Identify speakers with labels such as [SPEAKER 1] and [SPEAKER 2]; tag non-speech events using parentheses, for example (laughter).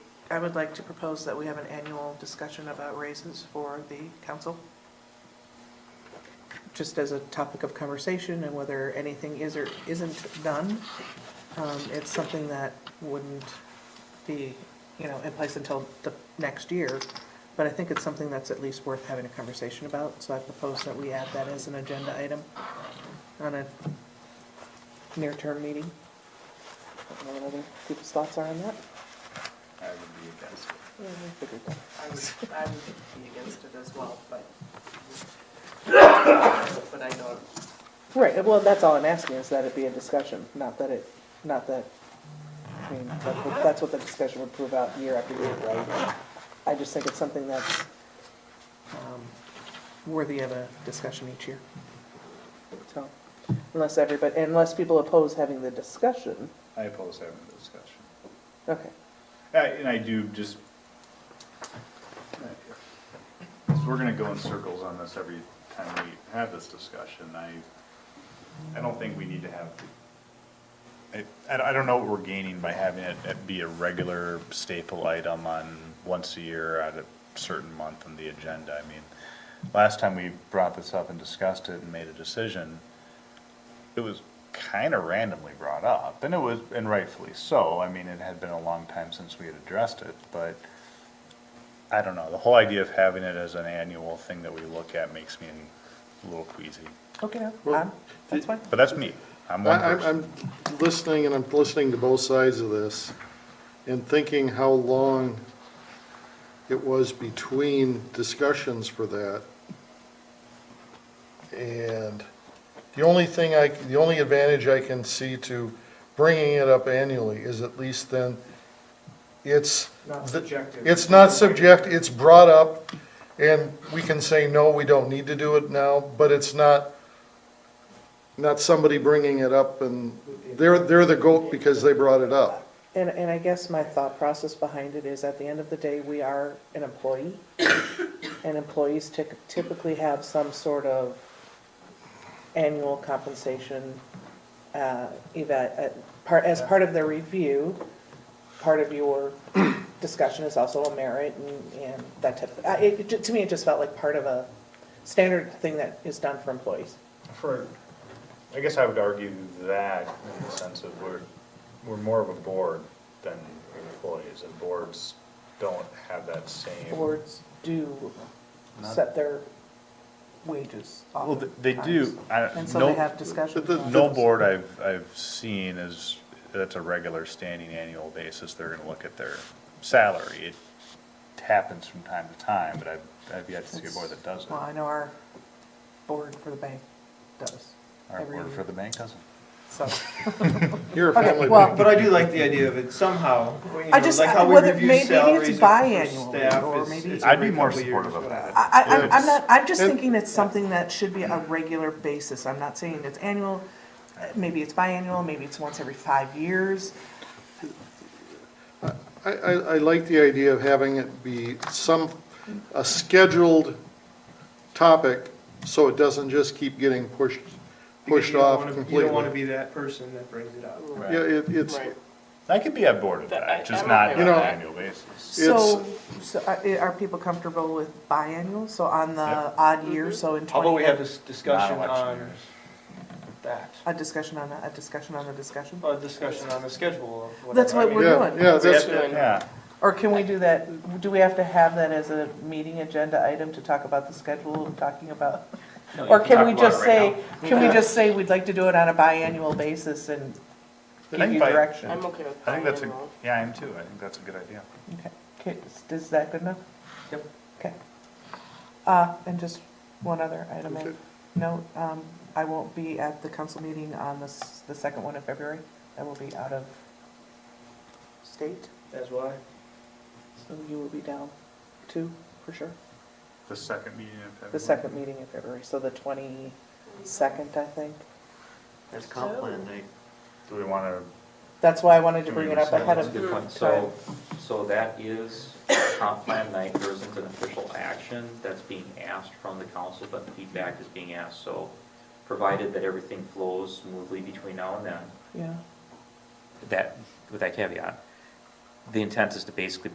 [SPEAKER 1] I would like to propose that we have an annual discussion about raises for the council. Just as a topic of conversation and whether anything is or isn't done. Um, It's something that wouldn't be, you know, in place until the next year. But I think it's something that's at least worth having a conversation about. So I propose that we add that as an agenda item on a near-term meeting. I don't know what other people's thoughts are on that.
[SPEAKER 2] I would be against it.
[SPEAKER 3] I would, I would be against it as well, but, but I don't,
[SPEAKER 1] Right, well, that's all I'm asking, is that it be a discussion, not that it, not that, I mean, that- that's what the discussion would prove out year after year, right? I just think it's something that's um, worthy of a discussion each year. So, unless everybody, unless people oppose having the discussion,
[SPEAKER 2] I oppose having a discussion.
[SPEAKER 1] okay.
[SPEAKER 2] Uh, And I do just, because we're gonna go in circles on this every time we have this discussion. I, I don't think we need to have, I, I I don't know what we're gaining by having it it be a regular staple item on once a year at a certain month on the agenda. I mean, last time we brought this up and discussed it and made a decision, it was kind of randomly brought up, and it was, and rightfully so. I mean, it had been a long time since we had addressed it, but I don't know. The whole idea of having it as an annual thing that we look at makes me a little queasy.
[SPEAKER 1] Okay,
[SPEAKER 4] Well,
[SPEAKER 1] I'm- that's fine.
[SPEAKER 2] But that's me. I'm one
[SPEAKER 4] I- I'm,
[SPEAKER 2] person.
[SPEAKER 4] I'm listening and I'm listening to both sides of this and thinking how long it was between discussions for that. And the only thing I, the only advantage I can see to bringing it up annually is at least then it's.
[SPEAKER 5] Not
[SPEAKER 4] the-
[SPEAKER 5] subjective.
[SPEAKER 4] It's not subject, it's brought up and we can say, no, we don't need to do it now, but it's not not somebody bringing it up and they're, they're the goat because they brought it up.
[SPEAKER 1] And, and I guess my thought process behind it is at the end of the day, we are an employee. And employees typ- typically have some sort of annual compensation, uh, eva, uh, part, as part of their review. Part of your discussion is also a merit and, and that type of, I- it, it ju- to me, it just felt like part of a standard thing that is done for employees.
[SPEAKER 2] For, I guess I would argue that in the sense of we're, we're more of a board than employees, and boards don't have that same.
[SPEAKER 1] Boards do set their wages
[SPEAKER 2] Well, th- they do. I-
[SPEAKER 1] And so they
[SPEAKER 2] no-
[SPEAKER 1] have discussion.
[SPEAKER 4] But the-
[SPEAKER 1] on
[SPEAKER 2] No
[SPEAKER 1] it.
[SPEAKER 2] board I've, I've seen is, that's a regular standing annual basis, they're gonna look at their salary. It happens from time to time, but I've, I've yet to see a board that does it.
[SPEAKER 1] Well, I
[SPEAKER 2] Our
[SPEAKER 1] know our board for the bank does. every
[SPEAKER 2] board for
[SPEAKER 1] year.
[SPEAKER 2] the bank doesn't. (laughs)
[SPEAKER 1] So,
[SPEAKER 4] You're a
[SPEAKER 1] Okay,
[SPEAKER 4] family
[SPEAKER 1] well,
[SPEAKER 4] man.
[SPEAKER 5] But I do like the idea of it somehow, you know,
[SPEAKER 1] I just-
[SPEAKER 5] like how we
[SPEAKER 1] whether- maybe
[SPEAKER 5] review
[SPEAKER 1] it's
[SPEAKER 5] salaries for-
[SPEAKER 1] biannual,
[SPEAKER 5] for staff.
[SPEAKER 1] or
[SPEAKER 5] it's-
[SPEAKER 1] maybe-
[SPEAKER 5] it's
[SPEAKER 2] I'd be
[SPEAKER 5] every
[SPEAKER 2] more
[SPEAKER 5] couple years,
[SPEAKER 2] supportive of
[SPEAKER 5] but-
[SPEAKER 2] that.
[SPEAKER 1] I, I, I'm- I'm
[SPEAKER 4] Yes.
[SPEAKER 1] not, I'm just
[SPEAKER 4] And-
[SPEAKER 1] thinking it's something that should be a
[SPEAKER 2] Mm-hmm.
[SPEAKER 1] regular basis. I'm not saying it's annual, uh, maybe it's biannual, maybe it's once every five years.
[SPEAKER 4] I, I, I like the idea of having it be some, a scheduled topic, so it doesn't just keep getting pushed,
[SPEAKER 5] because
[SPEAKER 4] pushed
[SPEAKER 5] you don't
[SPEAKER 4] off
[SPEAKER 5] wanna-
[SPEAKER 4] completely.
[SPEAKER 5] You don't want to be that person that brings it up.
[SPEAKER 4] Yeah, it, it's,
[SPEAKER 2] I could be on board with that, just not on
[SPEAKER 4] with
[SPEAKER 2] an
[SPEAKER 4] that.
[SPEAKER 2] annual basis.
[SPEAKER 1] So, so are, are people comfortable with biannual? So on the
[SPEAKER 2] Yep.
[SPEAKER 1] odd
[SPEAKER 4] Mm-hmm.
[SPEAKER 1] year, so in
[SPEAKER 5] How about we
[SPEAKER 1] twenty,
[SPEAKER 5] have this discussion
[SPEAKER 2] Not election
[SPEAKER 5] on
[SPEAKER 2] years.
[SPEAKER 5] that,
[SPEAKER 1] a discussion on, a a discussion on the discsion?
[SPEAKER 5] a discussion on the schedule of whatever.
[SPEAKER 1] That's
[SPEAKER 5] I
[SPEAKER 1] what
[SPEAKER 5] mean,
[SPEAKER 1] we're
[SPEAKER 4] yeah,
[SPEAKER 1] doing.
[SPEAKER 4] yeah, that's,
[SPEAKER 2] Yeah,
[SPEAKER 1] Or can we do that, do we have to have that as a meeting agenda item to talk about the schedule of talking about? Or can
[SPEAKER 2] talk
[SPEAKER 1] we
[SPEAKER 2] about it
[SPEAKER 1] just say,
[SPEAKER 2] right
[SPEAKER 1] can we just say we'd like to do it on a biannual basis and
[SPEAKER 2] I
[SPEAKER 1] give you
[SPEAKER 2] think bi-
[SPEAKER 1] direction?
[SPEAKER 6] I'm okay with
[SPEAKER 2] I think that's a,
[SPEAKER 6] biannual.
[SPEAKER 2] yeah, I am too, I think that's a good idea.
[SPEAKER 1] Okay. Okay, is- Is that good enough?
[SPEAKER 5] Yep.
[SPEAKER 1] Okay. Uh, and just one other item of
[SPEAKER 4] Okay.
[SPEAKER 1] note, um, I won't be at the council meeting on this, the second one of February. I will be out of state,
[SPEAKER 5] That's why.
[SPEAKER 1] so you will be down too, for sure.
[SPEAKER 2] The second meeting in February.
[SPEAKER 1] The second meeting in February, so the twenty-second, I think.
[SPEAKER 7] That's comp plan night.
[SPEAKER 2] Do we wanna,
[SPEAKER 1] That's why I wanted to bring it up ahead
[SPEAKER 7] That's a
[SPEAKER 1] of
[SPEAKER 7] good
[SPEAKER 1] time.
[SPEAKER 7] point. So, so that is comp plan night, there isn't an official action that's being asked from the council, but feedback is being asked, so provided that everything flows smoothly between now and then,
[SPEAKER 1] Yeah.
[SPEAKER 7] that, with that caveat, the intent is to basically